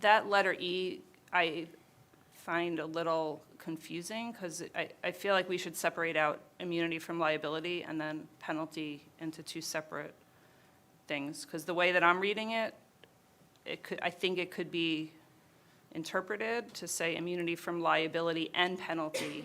that letter E, I find a little confusing, because I, I feel like we should separate out immunity from liability and then penalty into two separate things, because the way that I'm reading it, it could, I think it could be interpreted to say immunity from liability and penalty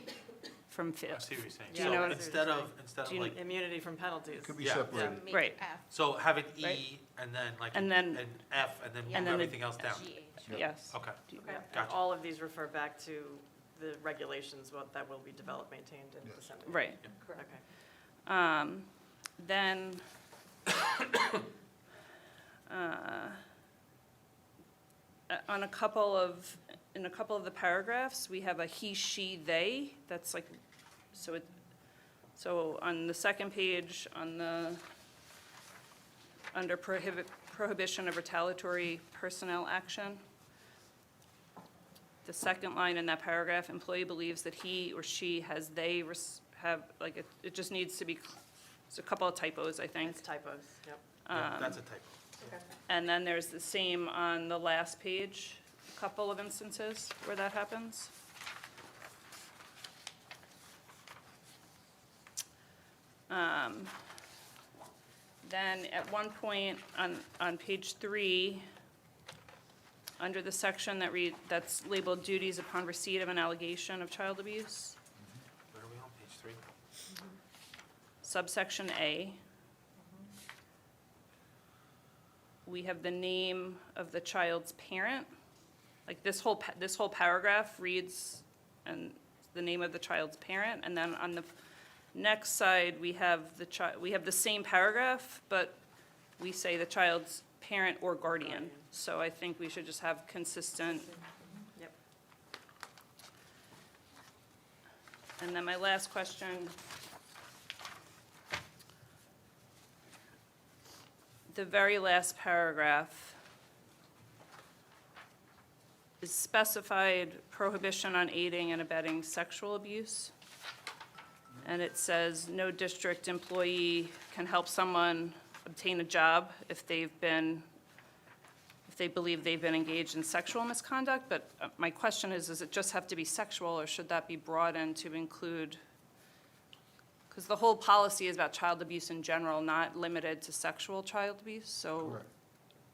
from I fail. see what you're saying. Do you know So what- instead of, instead of Do you- like, Immunity from penalties. Could be Yeah. separated. Make it Right. F, so have an E Right. and then like. And then- An F and then Yeah. And then move the everything else down. G H. Yes. Okay. Do you- Okay, and Gotcha. all of these refer back to the regulations what- that will be developed, maintained, and Yes. disseminated. Right. Okay. Um, Then, uh, uh, on a couple of, in a couple of the paragraphs, we have a he, she, they, that's like, so it, so on the second page, on the, under prohibit, prohibition of retaliatory personnel action, the second line in that paragraph, employee believes that he or she has they res- have, like, it, it just needs to be, cl- it's a couple of typos, I think. It's typos, yep. Um, Yeah, That's a typo. And then there's the same on the last page, a couple of instances where that happens. Um, Then at one point on, on page three, under the section that read, that's labeled duties upon receipt of an allegation of child abuse, Where are we on? Page three? subsection A. We have the name of the child's parent. Like this whole, pa- this whole paragraph reads and the name of the child's parent. And then on the next side, we have the chi, we have the same paragraph, but we say the child's parent or guardian. Guardian. So I think we should just have consistent Yep. And then my last question. The very last paragraph is specified prohibition on aiding and abetting sexual abuse. And it says, no district employee can help someone obtain a job if they've been, if they believe they've been engaged in sexual misconduct. But uh, my question is, does it just have to be sexual, or should that be broadened to include? Because the whole policy is about child abuse in general, not limited to sexual child abuse. So Correct.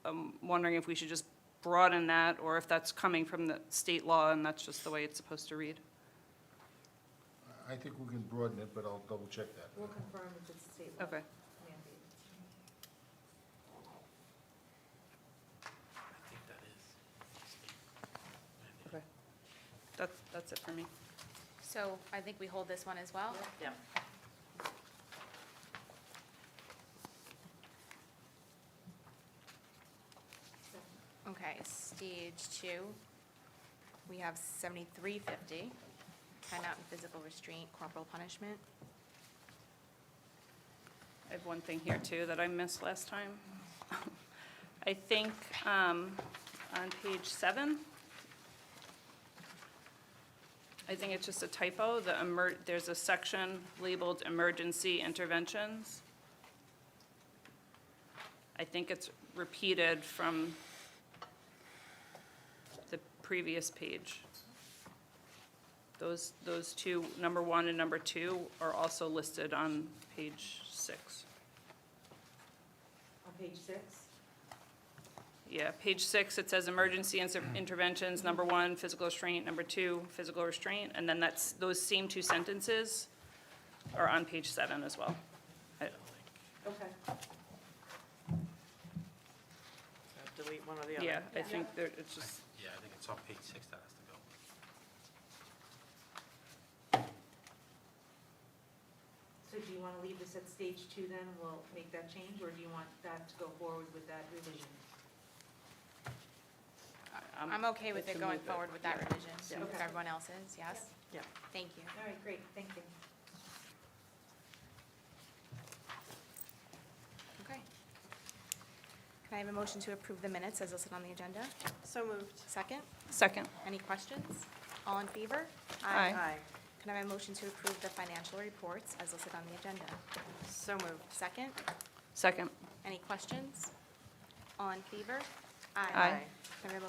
I'm wondering if we should just broaden that, or if that's coming from the state law and that's just the way it's supposed to read. I think we can broaden it, but I'll double check that. We'll confirm if it's state law Okay. mandated. I think that is. state mandate. Okay. That's, that's it for me. So I think we hold this one as well. Yep. Okay, stage two, we have seventy-three fifty, timeout and physical restraint, corporal punishment. I have one thing here, too, that I missed last time. I think um, on page seven, I think it's just a typo, the emer, there's a section labeled emergency interventions. I think it's repeated from the previous page. Those, those two, number one and number two, are also listed on page six. On page six? Yeah, page six, it says emergency inter- interventions, number one, physical restraint, number two, physical restraint, and then that's, those same two sentences are on page seven as well. I- Okay. So delete one or the other. Yeah, I think there, it's just, Yeah, I think it's on page six that has to go. So do you want to leave this at stage two then, and we'll make that change, or do you want that to go forward with that revision? I- I'm I'm, okay with Let's it going remove it. forward with that revision, so Yeah. Okay. everyone else is, yes? Yeah. Thank you. All right, great, thank you. Okay. Can I have a motion to approve the minutes as listed on the agenda? So moved. Second, second, any questions? All in favor? Aye. Aye. Can I have a motion to approve the financial reports as listed on the agenda? So moved. Second, second. any questions? All in favor? Aye. Can I have a